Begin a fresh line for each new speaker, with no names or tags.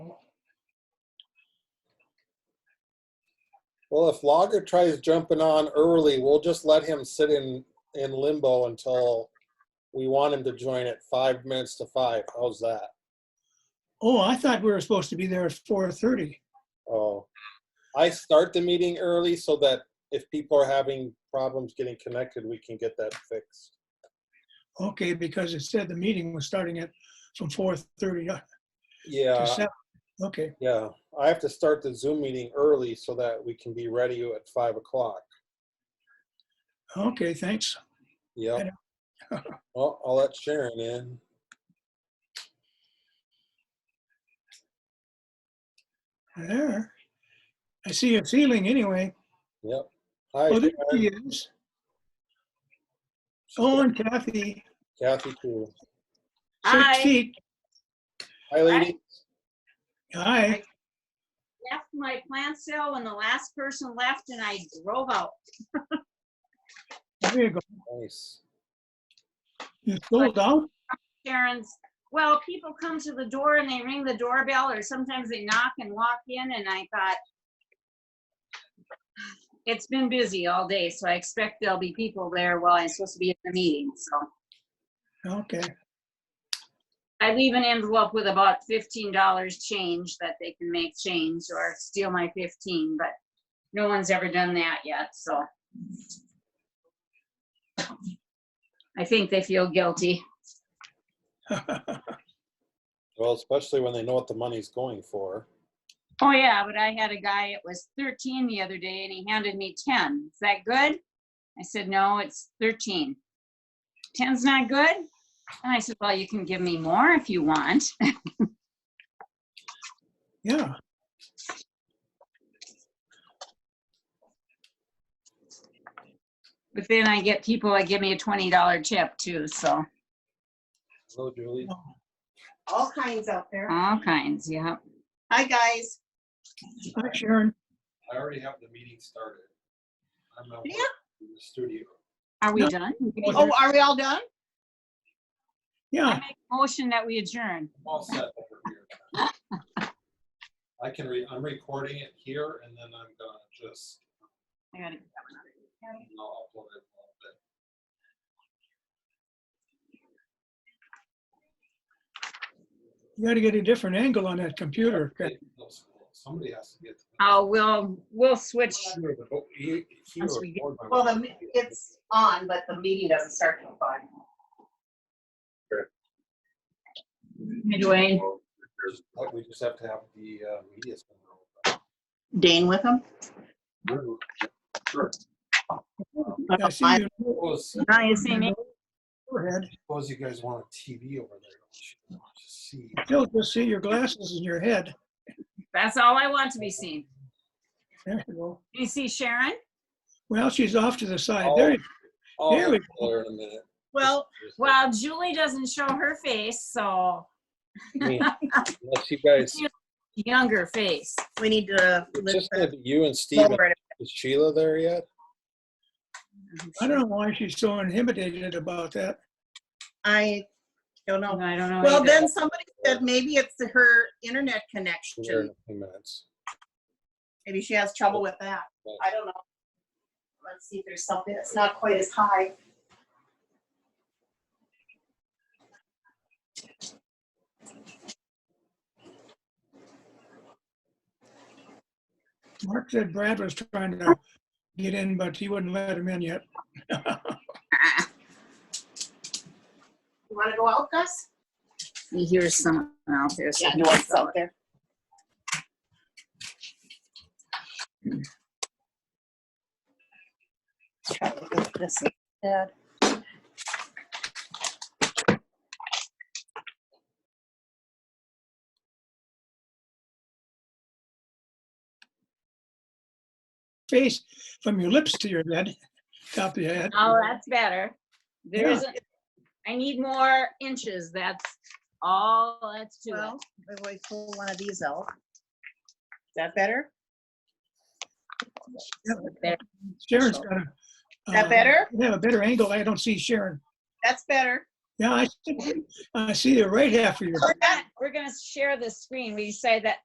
Well, if Logger tries jumping on early, we'll just let him sit in, in limbo until we want him to join at five minutes to five. How's that?
Oh, I thought we were supposed to be there at four thirty.
Oh, I start the meeting early so that if people are having problems getting connected, we can get that fixed.
Okay, because it said the meeting was starting at from four thirty to
Yeah,
seven. Okay,
yeah. I have to start the Zoom meeting early so that we can be ready at five o'clock.
okay, thanks. I
Yeah.
know.
Well, Oh, I'll let Sharon in.
There. I see a ceiling anyway.
Yep. Hi,
Oh, there
Sharon.
he is. Oh, and Kathy,
Kathy too.
six
I
feet.
Hi, lady.
Hi.
left my plant sale when the last person left and I drove out.
There you go.
Nice.
You sold out?
Karen's, well, people come to the door and they ring the doorbell or sometimes they knock and walk in and I thought, it's been busy all day, so I expect there'll be people there while I'm supposed to be at the meeting, so.
Okay.
I leave an envelope with about fifteen dollars change that they can make change or steal my fifteen, but no one's ever done that yet, so. I think they feel guilty.
Well, especially when they know what the money's going for.
Oh, yeah, but I had a guy, it was thirteen the other day and he handed me ten. Is that good? I said, no, it's thirteen. Ten's not good? And I said, well, you can give me more if you want.
Yeah.
But then I get people that give me a twenty dollar tip too, so
Hello, Julie.
all kinds out there.
all kinds, yeah.
Hi, guys.
Hi, Sharon.
I already have the meeting started. I'm out
Yeah.
in the studio.
Are we
No.
done?
Oh,
Oh, are we all done?
I
Yeah.
make a Motion that we adjourn.
I'm all set over here. I can re, I'm recording it here and then I'm gonna just,
I gotta-
I'll upload it a little bit.
You got to get a different angle on that computer.
Hey, those- Somebody has to get. to the-
Oh, we'll, we'll switch.
Here, but oh, he- he
Once we get-
record my-
Well, the, it's on, but the meeting doesn't start till five.
Anyway,
There's- like, We just have to have the uh, media. center
Dane with him?
open. Sure.
I see
I-
you
Suppose,
now you see me.
forehead.
suppose you guys want a TV over there. don't you? Just See.
Still just see your glasses in your head.
That's all I want to be seen.
There you go.
You see Sharon?
Well, she's off to the side.
Oh.
There, you-
I'll
There we
get there in a minute.
Well,
Well, Julie doesn't show her face, so
I mean, Unless you guys,
younger face.
we need to.
it's just gonna be you and Steve.
forward.
Is Sheila there yet?
I don't know why she's so intimidated about that.
I don't
No,
know.
I don't know.
Well,
either.
then somebody said maybe it's her internet
She's there in
connection.
a few minutes.
Maybe she has trouble with that. I don't know. Let's see if there's something that's not quite as high.
Mark said Brad was trying to get in, but he wouldn't let him in yet.
You want to go out, Gus?
You hear someone out there. so-
there. Try to look at this instead.
Face from your lips to your head, top of your head.
Oh, that's better. There
Yeah.
isn't, I need more inches. That's all, let's do it.
Well, if we pull one of these out. Is that better?
Sharon's got a.
Is that
uh,
better?
Yeah, a better angle. I don't see Sharon.
That's better.
Yeah, I, see- I see the right half of your
We're gonna- We're gonna share the screen. We say that